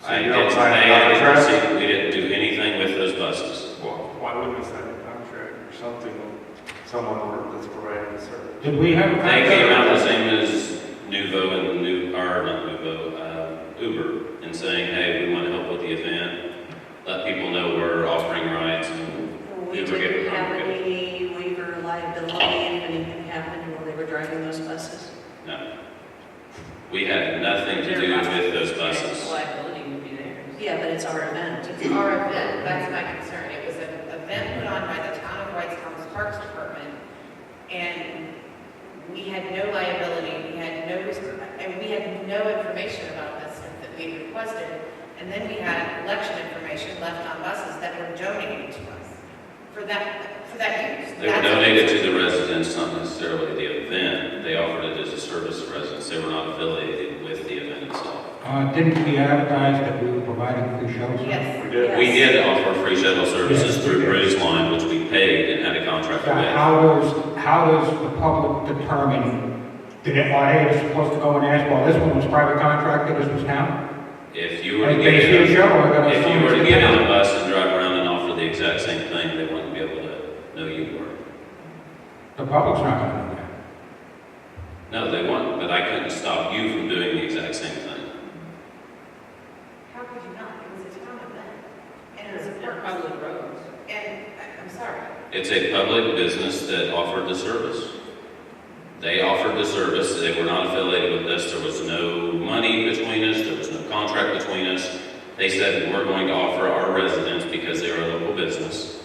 So I you didn't don't sign the pay contract? anything, we didn't do anything with those buses. Why why wouldn't we sign a contract or something, someone that's providing the service? Did we have a They came out the contract? same as Nuvo and Nu, or not Nuvo, uh, Uber, and saying, hey, we want to help with the event, let people know we're offering rides, and We didn't have any waiver liability if anything happened while they were driving those buses. no. We had nothing to do with those buses. Liability would be theirs. Yeah, but it's our event. It's our event, that's my concern. It was an event put on by the town of Whitestown's Parks Department, and we had no liability, we had no, and we had no information about this that we requested. And then we had election information left on buses that were donated to us for that, for that use. They were donated to the residents, not necessarily the event, they offered it as a service to residents, they were not affiliated with the event itself. Uh, didn't we advertise that we were providing free shuttles? Yes. We did. We Yes. did offer free shuttle services Yes, through we did. Bruce Line, which we paid and had a contract So with. how does, how does the public determine, did it, are they supposed to go and ask, well, this one was private contractor, this was town? If you were to Like, get they see a in, show, I gotta if assume you were to it's get town. on a bus and drive around and offer the exact same thing, they wouldn't be able to know you were. The public's not gonna know that. No, they wouldn't, but I couldn't stop you from doing the exact same thing. How could you not? It was a town event, and it was a park. Public roads. And, I- I'm sorry, It's a public business that offered the service. They offered the service, they were not affiliated with us, there was no money between us, there was no contract between us. They said, we're going to offer our residents, because they are a local business,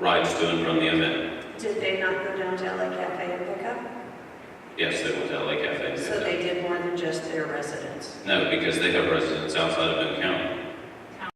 rides to and from the event. Did they not go down to LA Cafe and pick up? Yes, they went to LA Cafe. and picked So up. they did more than just their residents. No, because they have residents outside of Boone County.